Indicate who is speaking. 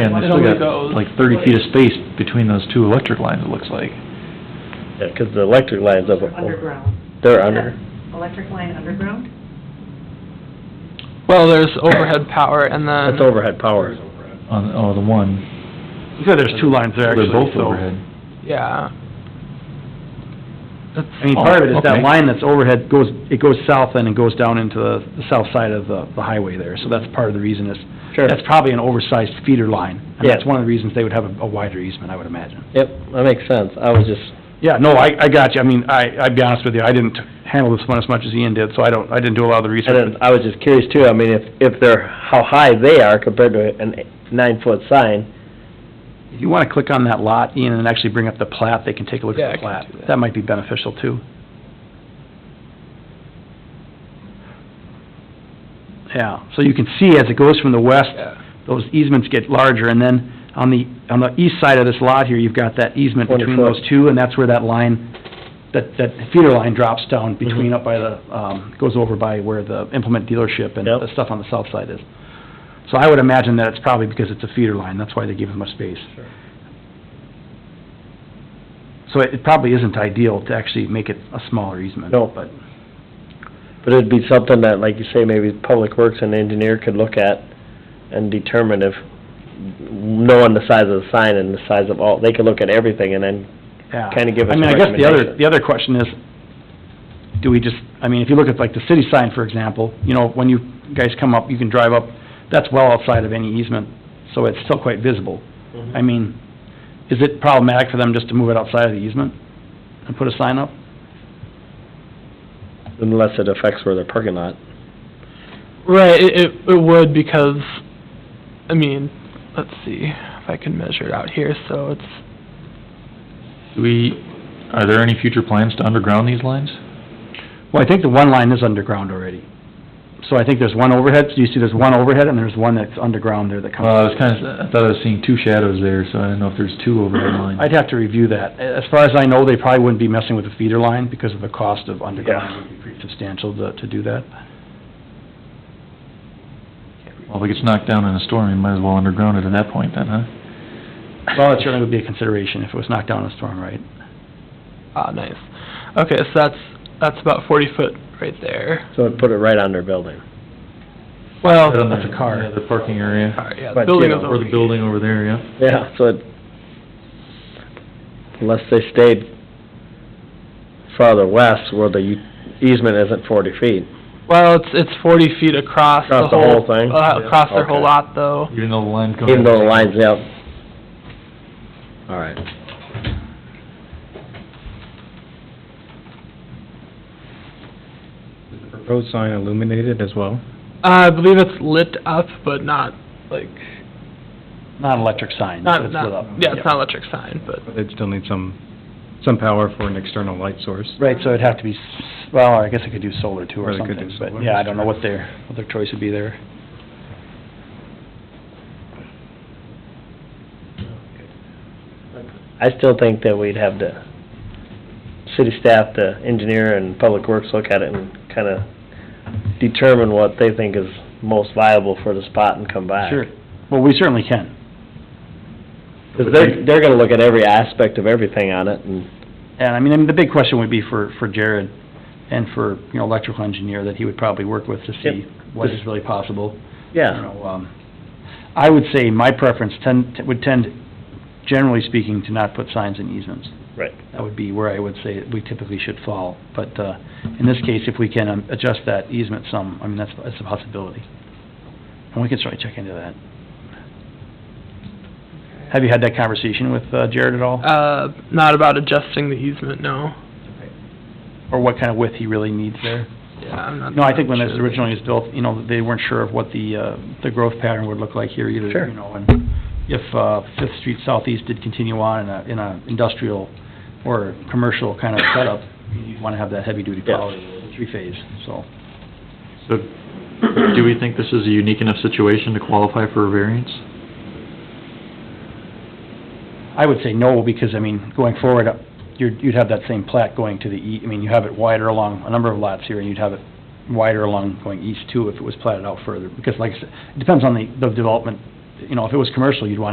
Speaker 1: And we still
Speaker 2: Nobody
Speaker 1: got
Speaker 2: goes.
Speaker 1: like thirty feet of space between those two electric lines, it looks like.
Speaker 3: Yeah, 'cause the electric line's up,
Speaker 4: Underground.
Speaker 3: they're under.
Speaker 4: Electric line underground?
Speaker 2: Well, there's overhead power and
Speaker 3: That's
Speaker 2: then,
Speaker 3: overhead power.
Speaker 1: On, oh, the one,
Speaker 5: You said there's two lines there,
Speaker 1: they're
Speaker 5: actually,
Speaker 1: both
Speaker 5: so-
Speaker 1: overhead.
Speaker 2: yeah,
Speaker 5: I mean, part of it is
Speaker 1: Oh, okay.
Speaker 5: that line that's overhead goes, it goes south and it goes down into the the south side of the the highway there, so that's part of the reason is,
Speaker 3: Sure.
Speaker 5: that's probably an oversized feeder line, and that's
Speaker 3: Yeah.
Speaker 5: one of the reasons they would have a a wider easement, I would imagine.
Speaker 3: Yep, that makes sense. I was just,
Speaker 5: Yeah, no, I, I got you, I mean, I, I'd be honest with you, I didn't handle this one as much as Ian did, so I don't, I didn't do a lot of the
Speaker 3: I
Speaker 5: research.
Speaker 3: didn't, I was just curious too, I mean, if, if they're, how high they are compared to a nine-foot sign.
Speaker 5: If you wanna click on that lot, Ian, and actually bring up the plat, they can take a look
Speaker 2: Yeah, I
Speaker 5: at the
Speaker 2: can
Speaker 5: plat.
Speaker 2: do that.
Speaker 5: That might be beneficial too. Yeah, so you can see as it goes from the west,
Speaker 2: yeah.
Speaker 5: those easements get larger, and then on the, on the east side of this lot here, you've got that easement
Speaker 3: 20
Speaker 5: between
Speaker 3: foot.
Speaker 5: those two, and that's where that line, that, that feeder line drops down
Speaker 2: Mm-hmm.
Speaker 5: between up by the, um, goes over by where the implement dealership and
Speaker 3: Yep.
Speaker 5: the stuff on the south side is. So I would imagine that it's probably because it's a feeder line, that's why they gave it much space.
Speaker 3: Sure.
Speaker 5: So it it probably isn't ideal to actually make it a smaller easement.
Speaker 3: No.
Speaker 5: But,
Speaker 3: But it'd be something that, like you say, maybe Public Works and engineer could look at and determine if, knowing the size of the sign and the size of all, they could look at everything and then
Speaker 5: yeah.
Speaker 3: Kinda give us
Speaker 5: I mean, I guess the other,
Speaker 3: recommendation.
Speaker 5: the other question is, do we just, I mean, if you look at like the city sign, for example, you know, when you guys come up, you can drive up, that's well outside of any easement, so it's still quite visible. I mean, is it problematic for them just to move it outside of the easement and put a sign up?
Speaker 3: unless it affects where they're parking lot.
Speaker 2: Right, it, it, it would because, I mean, let's see if I can measure it out here, so it's,
Speaker 1: Do we, are there any future plans to underground these lines?
Speaker 5: Well, I think the one line is underground already. So I think there's one overhead, so you see there's one overhead and there's one that's underground there that comes.
Speaker 1: Well, I was kinda, I thought I was seeing two shadows there, so I didn't know if there's two overhead lines.
Speaker 5: I'd have to review that. A- As far as I know, they probably wouldn't be messing with the feeder line because of the cost of underground.
Speaker 3: Yeah.
Speaker 5: would be pretty substantial to, to do that.
Speaker 1: Well, if it gets knocked down in a storm, you might as well underground it at that point then, huh?
Speaker 5: Well, it certainly would be a consideration if it was knocked down in a storm, right?
Speaker 2: ah, nice. Okay, so that's, that's about forty foot right there.
Speaker 3: So it'd put it right on their building.
Speaker 2: Well,
Speaker 1: Right on
Speaker 5: Oh, that's a
Speaker 1: the-
Speaker 5: car.
Speaker 1: yeah, The parking area,
Speaker 2: alright, yeah,
Speaker 3: But,
Speaker 2: the
Speaker 3: you
Speaker 2: building
Speaker 3: know,
Speaker 2: is
Speaker 1: or
Speaker 2: over
Speaker 1: the
Speaker 2: here.
Speaker 1: building over there, yeah.
Speaker 3: Yeah, so it, unless they stayed farther west where the u- easement isn't forty feet.
Speaker 2: Well, it's, it's forty feet across the
Speaker 3: Across the
Speaker 2: whole.
Speaker 3: whole thing?
Speaker 2: Uh,
Speaker 3: Yeah.
Speaker 2: across their whole
Speaker 3: Okay.
Speaker 2: lot though.
Speaker 1: Even though the line comes.
Speaker 3: Even though the line's out. All right.
Speaker 6: Proposed sign illuminated as well?
Speaker 2: Uh, I believe it's lit up, but not like,
Speaker 5: Not an electric sign.
Speaker 2: not,
Speaker 5: it's lit up.
Speaker 2: not, yeah, it's not electric sign, but.
Speaker 6: But they'd still need some, some power for an external light source.
Speaker 5: Right, so it'd have to be, s- well, I guess it could do solar too
Speaker 6: Or
Speaker 5: or
Speaker 6: they could do
Speaker 5: something, but
Speaker 6: solar.
Speaker 5: yeah, I don't know what their, what their choice would be there.
Speaker 3: I still think that we'd have the city staff, the engineer and public works look at it and kinda determine what they think is most viable for the spot and come back.
Speaker 5: Sure. Well, we certainly can.
Speaker 3: Cause they're, they're gonna look at every aspect of everything on it and,
Speaker 5: And I mean, I mean, the big question would be for, for Jared and for, you know, electrical engineer that he would probably work with to see what is really possible. you
Speaker 3: yeah,
Speaker 5: know, um, I would say my preference tend, would tend, generally speaking, to not put signs in easements.
Speaker 3: Right.
Speaker 5: That would be where I would say we typically should fall, but, uh, in this case, if we can um, adjust that easement some, I mean, that's, that's a possibility. And we can certainly check into that. Have you had that conversation with uh, Jared at all?
Speaker 2: Uh, not about adjusting the easement, no.
Speaker 5: Or what kind of width he really needs there?
Speaker 2: Yeah, I'm not.
Speaker 5: No, I think when
Speaker 2: sure.
Speaker 5: this originally was built, you know, they weren't sure of what the, uh, the growth pattern would look like here either.
Speaker 3: Sure.
Speaker 5: You know, and if, uh, Fifth Street Southeast did continue on in a, in a industrial or commercial kind of setup, you'd wanna have that heavy-duty
Speaker 3: Yes.
Speaker 5: power, three-phase, so.
Speaker 1: So, do we think this is a unique enough situation to qualify for a variance?
Speaker 5: I would say no, because, I mean, going forward, uh, you'd, you'd have that same plat going to the e, I mean, you have it wider along a number of lots here, and you'd have it wider along going east too if it was platted out further, because like I said, it depends on the, the development you know, if it was commercial, you'd want to